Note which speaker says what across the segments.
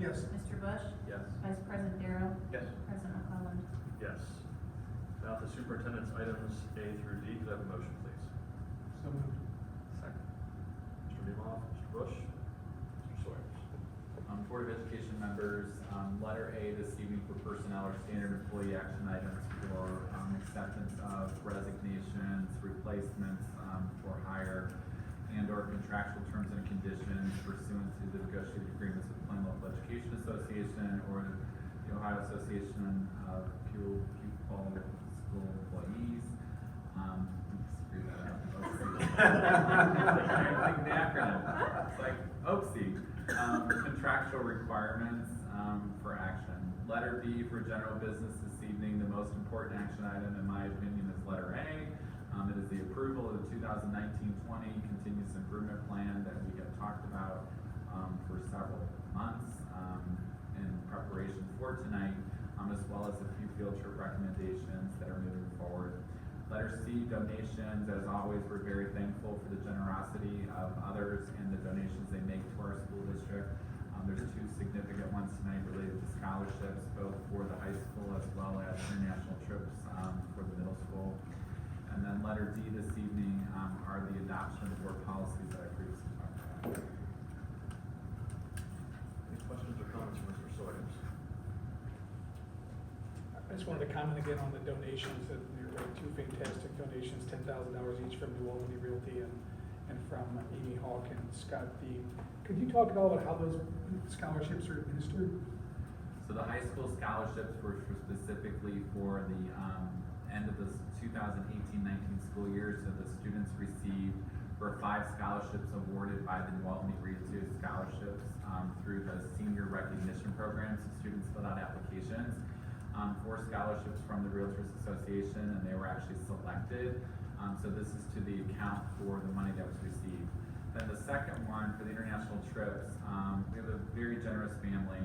Speaker 1: Yes.
Speaker 2: Mr. Bush?
Speaker 3: Yes.
Speaker 2: Vice President Darrow?
Speaker 3: Yes.
Speaker 2: President McClellan?
Speaker 3: Yes. Now the superintendent's items A through D, could I have a motion, please?
Speaker 1: So moved.
Speaker 3: Second. Mr. Nemoff, Mr. Bush, Mr. Sawyers.
Speaker 4: Um, Board of Education members, um, letter A this evening for personnel are standard employee action items for, um, acceptance of resignations, replacements, um, for hire and or contractual terms and conditions pursuant to the negotiated agreements with Plain Local Education Association or the Ohio Association of Pupil, Pupil School Employees. Um, screw that up. Oopsie. Like the acronym. It's like, oopsie. Um, contractual requirements, um, for action. Letter B for general business this evening, the most important action item in my opinion is letter A. Um, it is the approval of the 2019-20 continuous improvement plan that we have talked about, um, for several months, um, in preparation for tonight, um, as well as a few field trip recommendations that are moving forward. Letter C, donations, as always, we're very thankful for the generosity of others and the donations they make to our school district. Um, there's two significant ones tonight related to scholarships, both for the high school as well as international trips, um, for the middle school. And then letter D this evening, um, are the adoption of board policies that I previously talked about.
Speaker 3: Any questions or comments from Mr. Sawyers?
Speaker 1: I just wanted to comment again on the donations, that there were two fantastic donations, ten thousand dollars each from New Albany Realty and, and from Amy Hawk and Scott Dean. Could you talk at all about how those scholarships are administered?
Speaker 4: So the high school scholarships were for specifically for the, um, end of the 2018-19 school year, so the students received, were five scholarships awarded by the New Albany Region Scholarships, um, through the senior recognition program, so students filled out applications, um, for scholarships from the Realtors Association, and they were actually selected. Um, so this is to the account for the money that was received. Then the second one, for the international trips, um, we have a very generous family,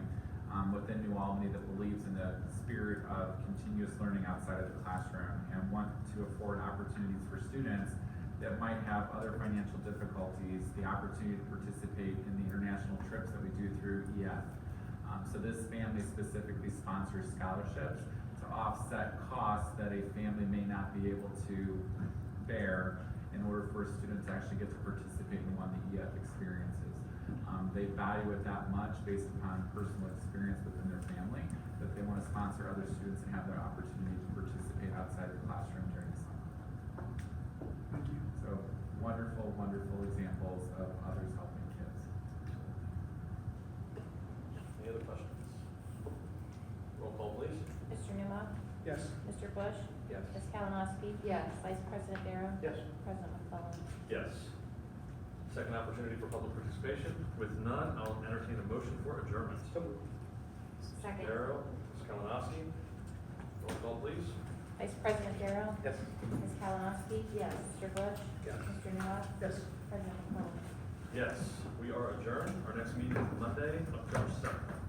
Speaker 4: um, within New Albany that believes in the spirit of continuous learning outside of the classroom and want to afford opportunities for students that might have other financial difficulties, the opportunity to participate in the international trips that we do through EF. Um, so this family specifically sponsors scholarships to offset costs that a family may not be able to bear in order for a student to actually get to participate in one of the EF experiences. Um, they value it that much based upon personal experience within their family, that they want to sponsor other students and have that opportunity to participate outside the classroom during the summer.
Speaker 1: Thank you.
Speaker 4: So wonderful, wonderful examples of others helping kids.
Speaker 3: Any other questions? Roll call, please.
Speaker 2: Mr. Newmaw?
Speaker 1: Yes.
Speaker 2: Mr. Bush?
Speaker 3: Yes.
Speaker 2: Ms. Kalinowski?
Speaker 5: Yes.
Speaker 2: Vice President Darrow?
Speaker 3: Yes.
Speaker 2: President McClellan?
Speaker 3: Yes. Second opportunity for public participation. With none, I'll entertain a motion for adjournment.
Speaker 2: Second.
Speaker 3: Darrow, Ms. Kalinowski, roll call, please.
Speaker 2: Vice President Darrow?
Speaker 3: Yes.
Speaker 2: Ms. Kalinowski? Yes. Mr. Bush?
Speaker 3: Yes.
Speaker 2: Mr. Newmaw?
Speaker 1: Yes.
Speaker 2: President McClellan?
Speaker 3: Yes, we are adjourned. Our next meeting is Monday, October seventh.